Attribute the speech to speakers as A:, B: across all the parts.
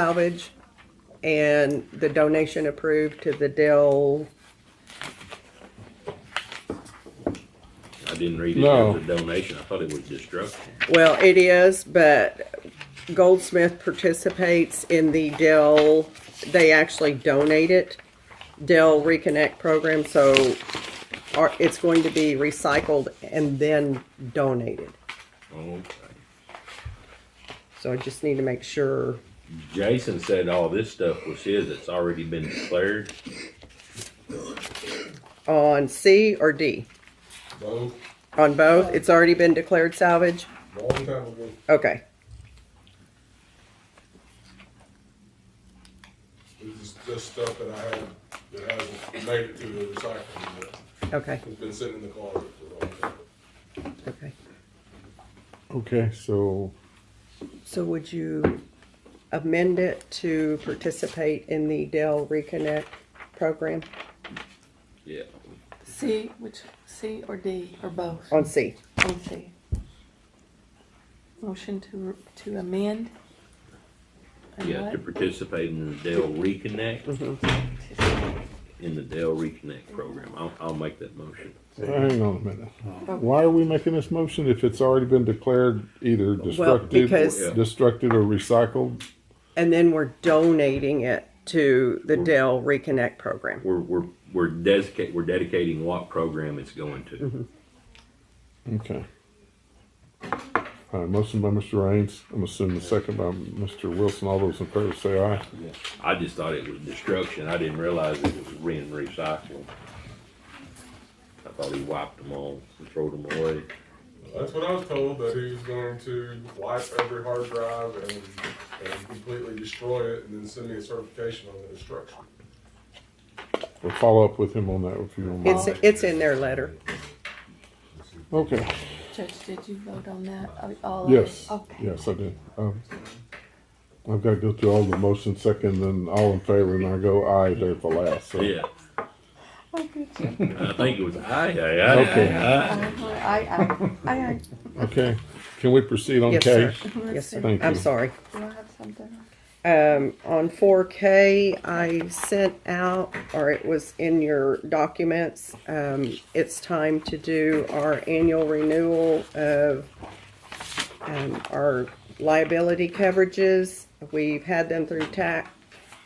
A: salvage and the donation approved to the Dell.
B: I didn't read it
C: No.
B: as a donation. I thought it was destruction.
A: Well, it is, but Goldsmith participates in the Dell, they actually donate it, Dell Reconnect program, so our- it's going to be recycled and then donated.
B: Okay.
A: So I just need to make sure.
B: Jason said all this stuff was his. It's already been declared.
A: On C or D?
D: Both,
A: On both? It's already been declared salvage?
D: long time ago.
A: Okay.
D: This is just stuff that I haven't, that hasn't made it to the recycling, yet.
A: Okay.
D: it's been sitting in the closet for a long time.
A: Okay.
C: Okay, so
A: So would you amend it to participate in the Dell Reconnect program
B: Yeah.
E: C, which, C or D, or both?
A: on C?
E: On C. Motion to, to amend? And
B: Yeah, to
E: what?
B: participate in the Dell Reconnect,
E: Mm-hmm.
B: in the Dell Reconnect program. I'll, I'll make that motion.
C: hang on a minute. Why are we making this motion if it's already been declared either destructive,
A: because-
C: destructed or recycled?
A: And then we're donating it to the Dell Reconnect program.
B: We're, we're, we're dedicate, we're dedicating what program it's going
E: Mm-hmm.
B: to.
C: Okay. All right, motion by Mr. Raines. I'm assuming the second by Mr. Wilson. All those in favor say aye.
B: I just thought it was destruction. I didn't realize it was re and recycling. I thought he wiped them all and threw them away.
D: That's what I was told, that he was going to wipe every hard drive and, and completely destroy it and then send me a certification on the destruction.
C: We'll follow up with him on that if you don't
A: It's,
C: mind.
A: it's in their letter.
C: Okay,
E: Judge, did you vote on that? Are- All of it?
C: yes,
E: Okay.
C: yes, I did. Um, I've got to go through all the motion second and all in favor and I go aye there at the last. so-
B: Yeah,
E: Oh, good.
B: I think it was I, I, I.
C: Okay.
E: I, I, I, I,
C: Okay, can we proceed on
A: Yes, sir.
C: K?
A: Yes, sir.
C: Thank
A: I'm
C: you.
A: sorry.
E: do I have something?
A: Um, on 4K, I sent out, or it was in your documents, um, it's time to do our annual renewal of um, our liability coverages. We've had them through TAC,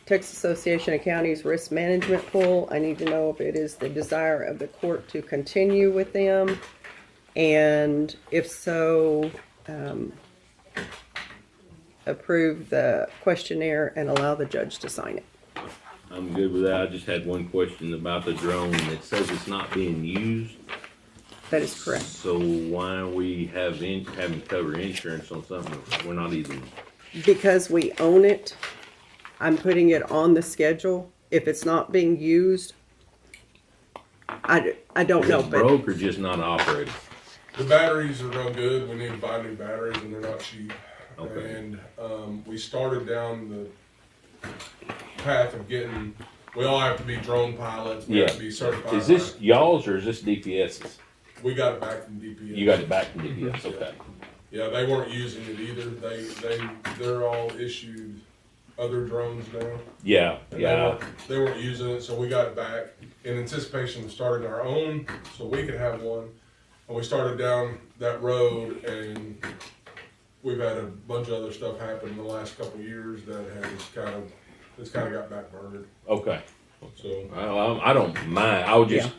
A: Texas Association of Counties Risk Management Pool. I need to know if it is the desire of the court to continue with them. And if so, approve the questionnaire and allow the judge to sign it.
B: I'm good with that. I just had one question about the drone. It says it's not being used.
A: That is correct.
B: So why are we having, having to cover insurance on something we're not even,
A: Because we own it, I'm putting it on the schedule. If it's not being used, I, d- I don't know,
B: it's
A: but
B: broke or just not operating?
D: The batteries are no good, we need to buy new batteries and they're not cheap.
B: Okay.
D: And, um, we started down the path of getting, we all have to be drone pilots, we have to be certified.
B: Is this y'all's or is this DPS's?
D: We got it back from DPS.
B: You got it back from DPS, okay.
D: Yeah, they weren't using it either. They, they, they're all issued other drones now.
B: Yeah,
D: and they
B: yeah,
D: weren't- They weren't using it, so we got it back in anticipation of starting our own, so we could have one. And we started down that road and we've had a bunch of other stuff happen in the last couple of years that has kind of, it's kind of got backburned,
B: okay.
D: so.
B: Well, I, I don't mind. I would just,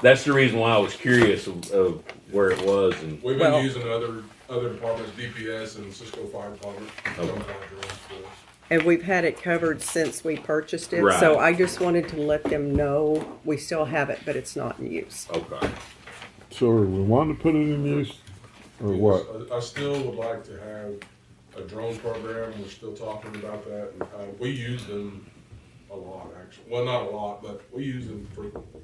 B: that's the reason why I was curious of, of where it was and,
D: We've
A: Well-
D: been using other, other departments, DPS and Cisco Fire Department. some
B: Okay.
D: of our drones for us.
A: and we've had it covered since we purchased it. So I
B: Right.
A: just wanted to let them know we still have it, but it's not in use.
B: okay.
C: So are we wanting to put it in use or what?
D: I, I still would like to have a drone program, we're still talking about that, uh, we use them a lot, actually, well, not a lot, but we use them frequently.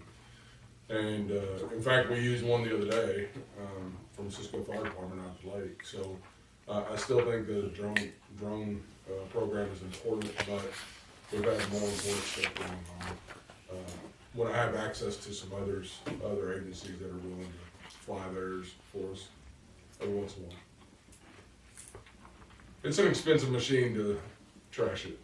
D: And, uh, in fact, we used one the other day, um, from Cisco Fire Department out of Lake, so, uh, I still think the drone, drone, uh, program is important, but we've had more important stuff going on. Uh, When I have access to some others, other agencies that are willing to fly theirs for us, every once in a while. It's an expensive machine to trash it.